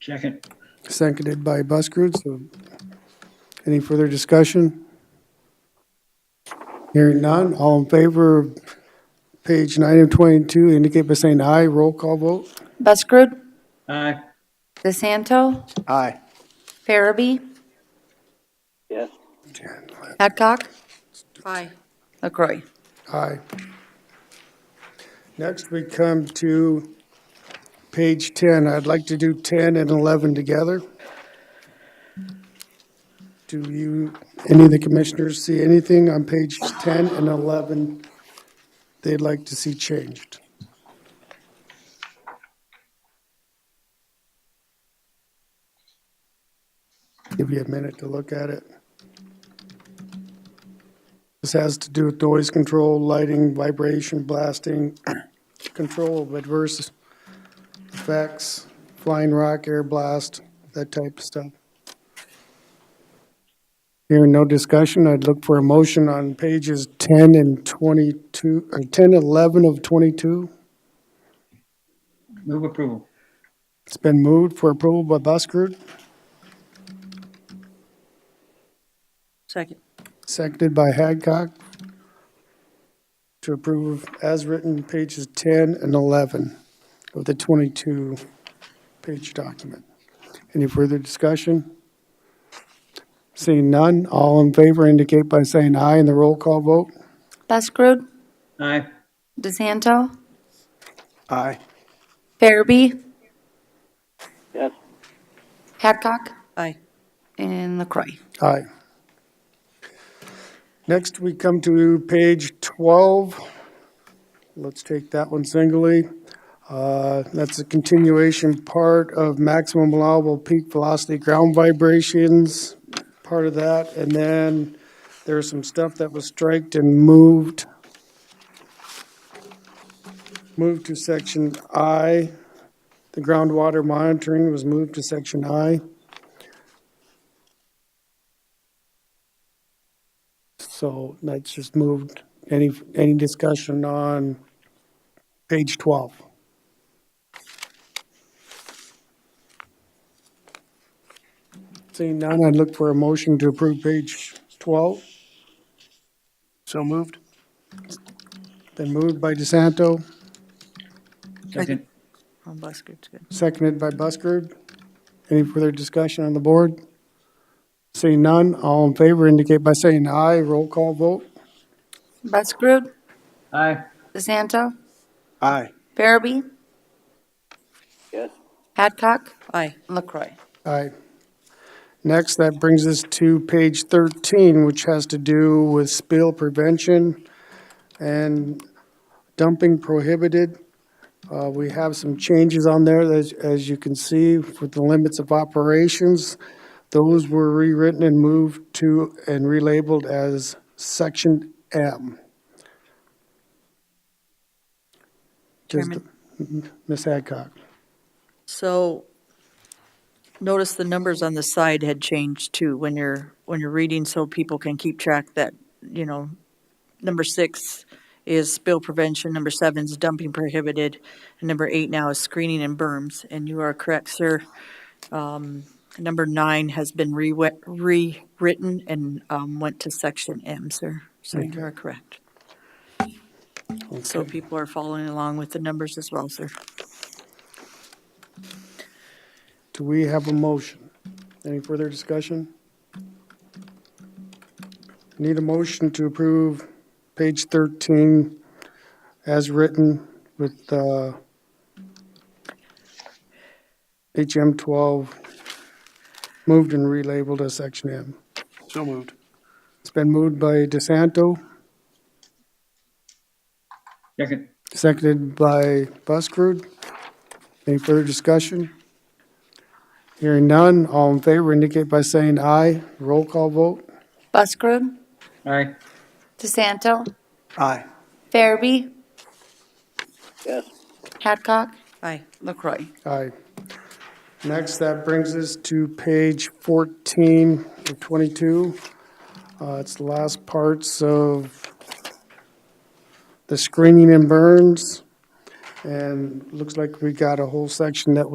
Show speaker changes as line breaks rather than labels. Second.
Seconded by Buschrood, so any further discussion? Hearing none, all in favor of page nine of 22, indicate by saying aye. Roll call vote.
Buskerud,
Aye.
DeSanto,
Aye.
Farabee,
Yes.
Adcock. Aye. LaCroy.
Aye. Next, we come to page 10. I'd like to do 10 and 11 together. Do you, any of the commissioners see anything on page 10 and 11 they'd like to see changed? Give you a minute to look at it. This has to do with noise control, lighting, vibration, blasting, control of adverse effects, flying rock, air blast, that type of stuff. Hearing no discussion, I'd look for a motion on pages 10 and 22, or 10, 11 of 22.
Move approval.
It's been moved for approval by Buschrood,
Second.
seconded by Hadcock to approve as written pages 10 and 11 of the 22-page document. Any further discussion? Seeing none, all in favor indicate by saying aye in the roll call vote.
Buskerud,
Aye.
DeSanto,
Aye.
Farabee,
Yes.
Adcock,
Aye.
and LaCroy.
Aye. Next, we come to page 12. Let's take that one singly. Uh, That's a continuation part of maximum allowable peak velocity ground vibrations, part of that. And then there's some stuff that was striked and moved. Moved to section I. The groundwater monitoring was moved to section I. So that's just moved. Any, any discussion on page 12? Seeing none, I'd look for a motion to approve page 12. So moved. Been moved by DeSanto,
Second.
On Buskard's Oh, good.
seconded by Buschrood. Any further discussion on the board? Seeing none, all in favor indicate by saying aye. Roll call vote.
Buskerud,
Aye.
DeSanto,
Aye.
Farabee,
Yes.
Adcock,
Aye.
LaCroy.
Aye. Next, that brings us to page 13, which has to do with spill prevention and dumping prohibited. Uh, We have some changes on there, as- as you can see, with the limits of operations. Those were rewritten and moved to and relabeled as Section M. Just- Ms. Hadcock.
So notice the numbers on the side had changed too when you're, when you're reading so people can keep track that, you know, number six is spill prevention, number seven is dumping prohibited, and number eight now is screening and berms. And you are correct, sir. Um, Number nine has been rewe- rewritten and um, went to section M, sir. So you are correct. So people are following along with the numbers as well, sir.
Do we have a motion? Any further discussion? Need a motion to approve page 13 as written with uh, HM 12 moved and relabeled as section M.
So moved.
It's been moved by DeSanto,
Second.
seconded by Buskerud. Any further discussion? Hearing none, all in favor indicate by saying aye. Roll call vote.
Buskerud,
Aye.
DeSanto,
Aye.
Farabee,
Yes.
Adcock,
Aye.
LaCroy.
Aye. Next, that brings us to page 14 of 22. Uh, It's the last parts of the screening and burns. And looks like we got a whole section that was.